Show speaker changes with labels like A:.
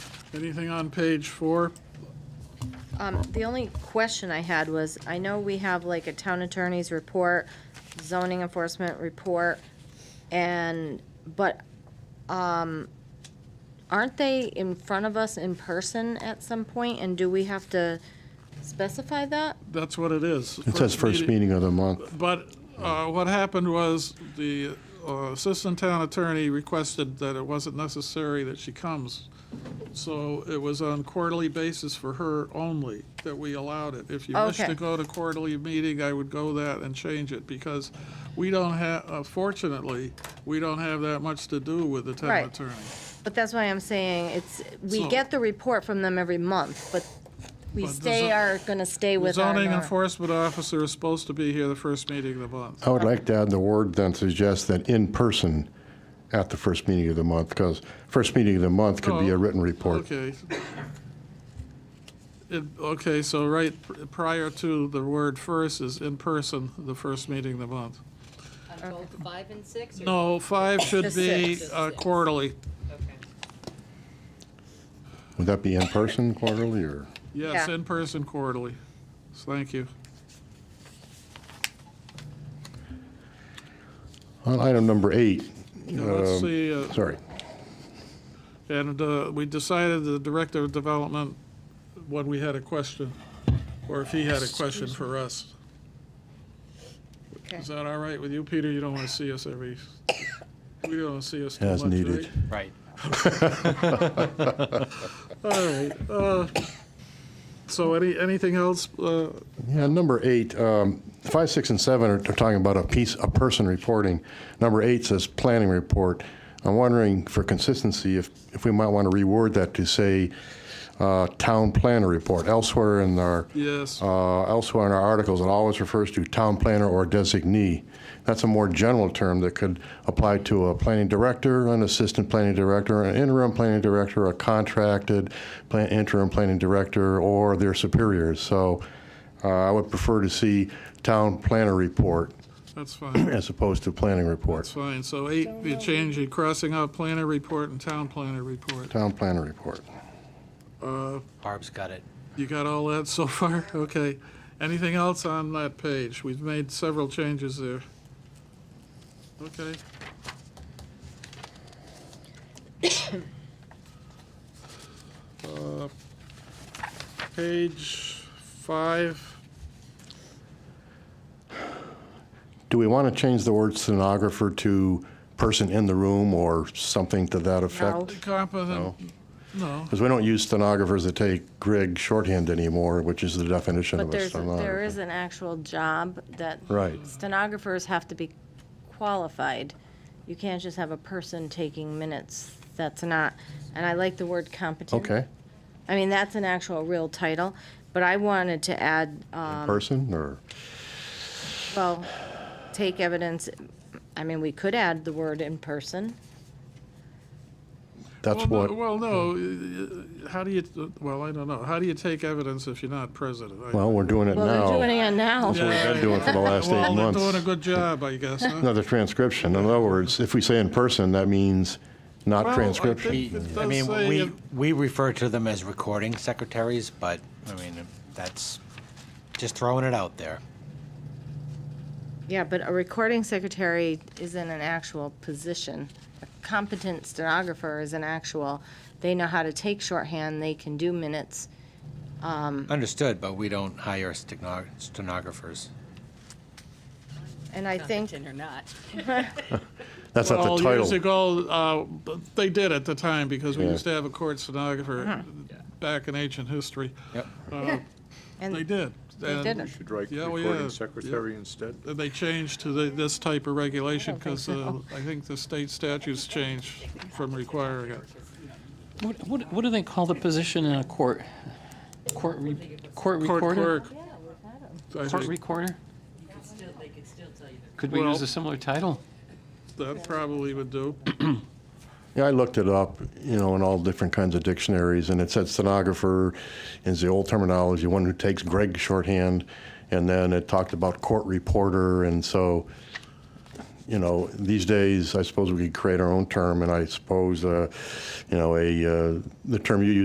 A: Anything on page four?
B: Um, the only question I had was, I know we have like a town attorney's report, zoning enforcement report, and, but, um, aren't they in front of us in person at some point, and do we have to specify that?
A: That's what it is.
C: It says first meeting of the month.
A: But uh, what happened was the uh, assistant town attorney requested that it wasn't necessary that she comes. So it was on quarterly basis for her only that we allowed it. If you wish
B: Okay.
A: to go to quarterly meeting, I would go that and change it because we don't have, fortunately, we don't have that much to do with the town
B: Right.
A: attorney.
B: But that's why I'm saying, it's, we
A: So-
B: get the report from them every month, but we
A: But the
B: stay,
A: zo-
B: are gonna stay
A: The
B: with our. uh,
A: Zoning
B: nor-
A: enforcement officer is supposed to be here the first meeting of the month.
C: I would like to add the word then suggest that in person at the first meeting of the month, because first meeting of the month could be a
A: Oh,
C: written report.
A: Okay. It, okay, so right pr- prior to the word first is in person, the first meeting of the month.
D: On both five and six? or-
A: No, five should
B: Just
A: be
B: six.
A: uh, quarterly,
D: Okay.
C: Would that be in person quarterly or?
A: yes,
B: Yeah.
A: in person quarterly. So Thank you.
C: On item number eight,
A: Now, Let's
C: Um,
A: see, uh,
C: sorry,
A: and uh, we decided the Director of Development, when we had a question, or if he had a question for us.
B: Okay.
A: Is that all right with you, Peter? You don't want to see us every, we don't want to see us too much,
C: as
A: right?
C: needed.
E: Right.
A: All right. uh, So any, anything else? uh,
C: Yeah, number eight, um, five, six, and seven are, are talking about a piece, a person reporting. Number eight says planning report. I'm wondering for consistency if, if we might want to reword that to say, uh, town planner report. Elsewhere in our
A: Yes,
C: Uh, Elsewhere in our articles, it always refers to town planner or designee. That's a more general term that could apply to a planning director, an assistant planning director, an interim planning director, a contracted plan- interim planning director, or their superiors. So uh, I would prefer to see town planner report
A: that's fine.
C: as opposed to planning
A: That's
C: report,
A: fine. So eight, you change, you're crossing out planner report and town planner report.
C: town planner report.
E: Barb's got it.
A: You got all that so far? Okay. Anything else on that page? We've made several changes there. Okay. Uh, Page five.
C: Do we want to change the word stenographer to person in the room or something to that
B: No.
C: effect?
A: Competent, no.
C: Because we don't use stenographers that take Grig shorthand anymore, which is the definition
B: But
C: of a
B: there's, there
C: stenographer.
B: is an actual job that.
C: Right.
B: Stenographers have to be qualified. You can't just have a person taking minutes. That's not, and I like the word competent.
C: Okay,
B: I mean, that's an actual real title, but I wanted to add, um,
C: person or,
B: well, take evidence. I mean, we could add the word in person.
C: that's
A: well,
C: what,
A: No, well, no. uh, How do you? Well, I don't know. How do you take evidence if you're not president? I-
C: well, we're doing it
B: Well, they're doing
C: now.
B: it now.
C: That's what we've been doing for the last
A: well,
C: eight
A: they're doing a
C: months.
A: good job, I guess. Huh?
C: Another transcription. In other words, if we say in person, that means
A: Well,
C: not
A: I
C: transcription.
A: think-
E: We-
A: It
E: I
A: does
E: mean,
A: say
E: we,
A: it-
E: we refer to them as recording secretaries, but, I mean, that's just throwing it out there.
B: Yeah, but a recording secretary isn't an actual position. A competent stenographer is an actual, they know how to take shorthand, they can do minutes.
E: Mm. Understood, but we don't hire steno- stenographers.
B: And I think,
D: Competent or not.
C: That's not
A: well,
C: the
A: years
C: title.
A: ago, uh, but they did at the time because we
C: Yeah.
A: used to have a court stenographer back in ancient history.
E: Yep.
A: Uh,
B: And-
A: they did.
B: They
A: And-
B: did it.
F: Should write
A: Yeah, well, yeah,
F: recording
A: yeah.
F: secretary instead?
A: and They changed to the, this type of regulation because uh, I think the state statutes changed from requiring it.
G: What, what, what do they call the position in a court? Court, re, court
A: Court
G: recorder?
A: clerk. I
G: Court
A: think
G: recorder? Could we
A: Well-
G: use a similar title?
A: that probably would do.
C: Yeah, I looked it up, you know, in all different kinds of dictionaries, and it said stenographer is the old terminology, one who takes Grig shorthand. And then it talked about court reporter, and so, you know, these days, I suppose we could create our own term, and I suppose, uh, you know, a, uh, the term you use.